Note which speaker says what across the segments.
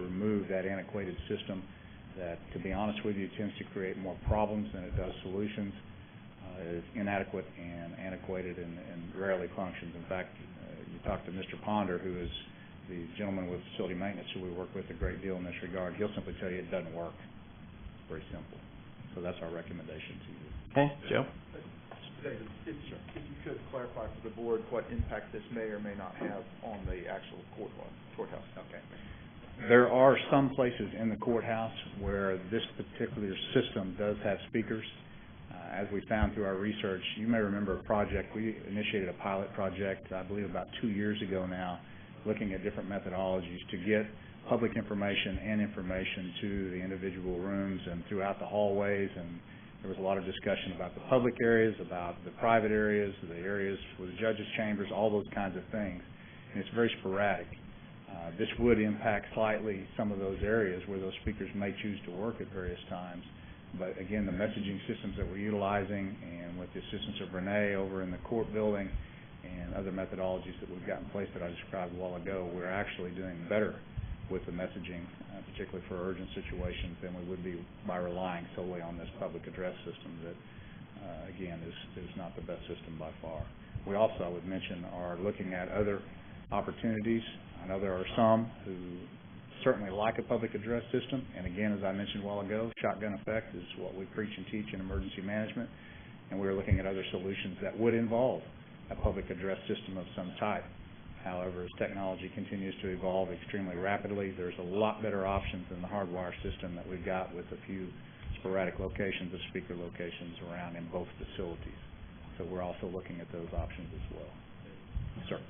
Speaker 1: remove that antiquated system that, to be honest with you, tends to create more problems than it does solutions. Uh, It is inadequate and antiquated and rarely functions. In fact, uh, you talk to Mr. Ponder, who is the gentleman with facility maintenance who we work with a great deal in this regard, he'll simply tell you it doesn't work. Very simple. So that's our recommendation to you.
Speaker 2: Okay, Joe?
Speaker 3: David, if if you could clarify for the board what impact this may or may not have on the actual court courthouse.
Speaker 1: Okay. There are some places in the courthouse where this particular system does have speakers. Uh, As we found through our research, you may remember a project, we initiated a pilot project, I believe about two years ago now, looking at different methodologies to get public information and information to the individual rooms and throughout the hallways. And there was a lot of discussion about the public areas, about the private areas, the areas with the judges' chambers, all those kinds of things. And it's very sporadic. Uh, This would impact slightly some of those areas where those speakers may choose to work at various times. But again, the messaging systems that we're utilizing and with the assistance of Renee over in the court building and other methodologies that we've got in place that I described a while ago, we're actually doing better with the messaging, uh, particularly for urgent situations, than we would be by relying solely on this public address system that, uh, again, is, is not the best system by far. We also, I would mention, are looking at other opportunities. I know there are some who certainly like a public address system, and again, as I mentioned a while ago, shotgun effect is what we preach and teach in emergency management, and we're looking at other solutions that would involve a public address system of some type. However, as technology continues to evolve extremely rapidly, there's a lot better options than the hardwire system that we've got with a few sporadic locations of speaker locations around in both facilities. So we're also looking at those options as well. Sir?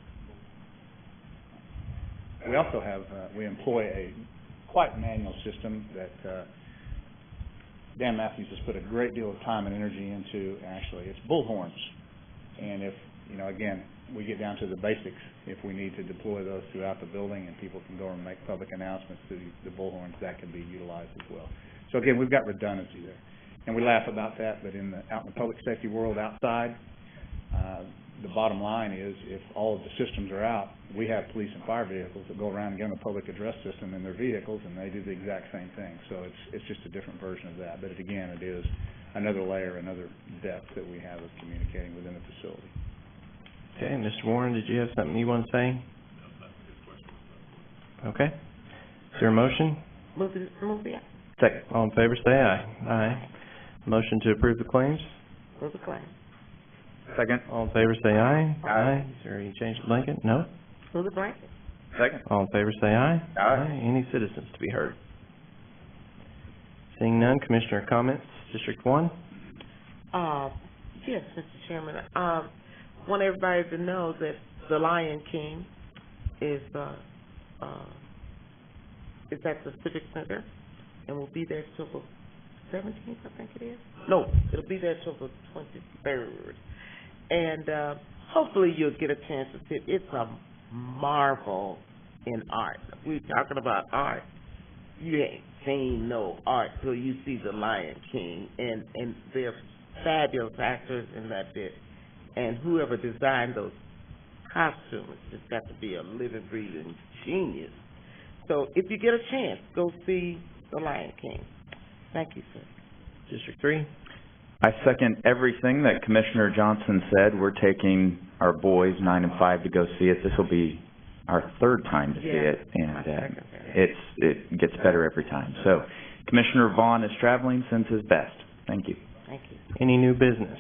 Speaker 1: We also have, uh, we employ a quite manual system that uh, Dan Matthews has put a great deal of time and energy into, actually. It's bullhorns. And if, you know, again, we get down to the basics, if we need to deploy those throughout the building and people can go and make public announcements through the bullhorns, that can be utilized as well. So again, we've got redundancy there. And we laugh about that, but in the, out in the public safety world outside, uh, the bottom line is, if all of the systems are out, we have police and fire vehicles that go around and get on the public address system in their vehicles, and they do the exact same thing. So it's, it's just a different version of that, but it, again, it is another layer, another depth that we have of communicating within the facility.
Speaker 2: Okay, Mr. Warren, did you have something you want to say? Okay. Is there a motion?
Speaker 4: Move it, move it,
Speaker 2: Second. All in favor, say aye. Aye. Motion to approve the claims?
Speaker 4: move the claim,
Speaker 3: Second.
Speaker 2: All in favor, say aye.
Speaker 4: Aye.
Speaker 2: Is there any change to blanket? No?
Speaker 4: move the blanket,
Speaker 3: Second.
Speaker 2: All in favor, say aye.
Speaker 3: Aye.
Speaker 2: Any citizens to be heard? Seeing none, Commissioner comments, District One?
Speaker 4: uh, yes, Mr. Chairman, um, want everybody to know that The Lion King is, uh, uh, is at the Civic Center, and will be there till the seventeenth, I think it is? No, it'll be there till the twenty-third, and, uh, hopefully you'll get a chance to see it, it's a marvel in art, we're talking about art, you ain't seen no art till you see The Lion King, and, and they're fabulous actors in that bit. And whoever designed those costumes has got to be a living, breathing genius. So if you get a chance, go see The Lion King. Thank you, sir.
Speaker 2: District Three?
Speaker 5: I second everything that Commissioner Johnson said. We're taking our boys, nine and five, to go see it. This will be our third time to see
Speaker 4: Yeah,
Speaker 5: it, and,
Speaker 4: I
Speaker 5: uh,
Speaker 4: second that.
Speaker 5: it's, it gets better every time. So Commissioner Vaughn is traveling, sends his best. Thank you.
Speaker 4: Thank you.
Speaker 2: Any new business?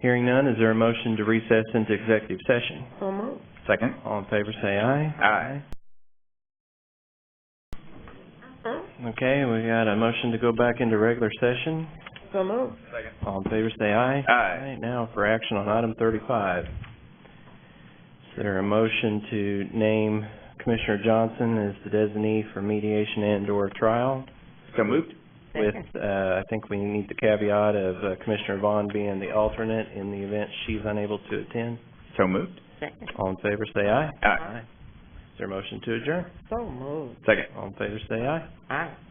Speaker 2: Hearing none, is there a motion to recess into executive session?
Speaker 4: So moved.
Speaker 5: Second?
Speaker 2: All in favor, say aye.
Speaker 5: Aye.
Speaker 2: Okay, we got a motion to go back into regular session.
Speaker 4: So moved.
Speaker 2: All in favor, say aye.
Speaker 5: Aye.
Speaker 2: Now for action on item thirty-five. Is there a motion to name Commissioner Johnson as the designee for mediation and/or trial?
Speaker 5: So moved?
Speaker 2: With,
Speaker 4: Second.
Speaker 2: uh, I think we need the caveat of uh, Commissioner Vaughn being the alternate in the event she's unable to attend.
Speaker 5: So moved?
Speaker 4: Second.
Speaker 2: All in favor, say aye.
Speaker 5: Aye.
Speaker 2: Is there a motion to adjourn?
Speaker 4: So moved.
Speaker 5: Second?
Speaker 2: All in favor, say aye.
Speaker 4: Aye.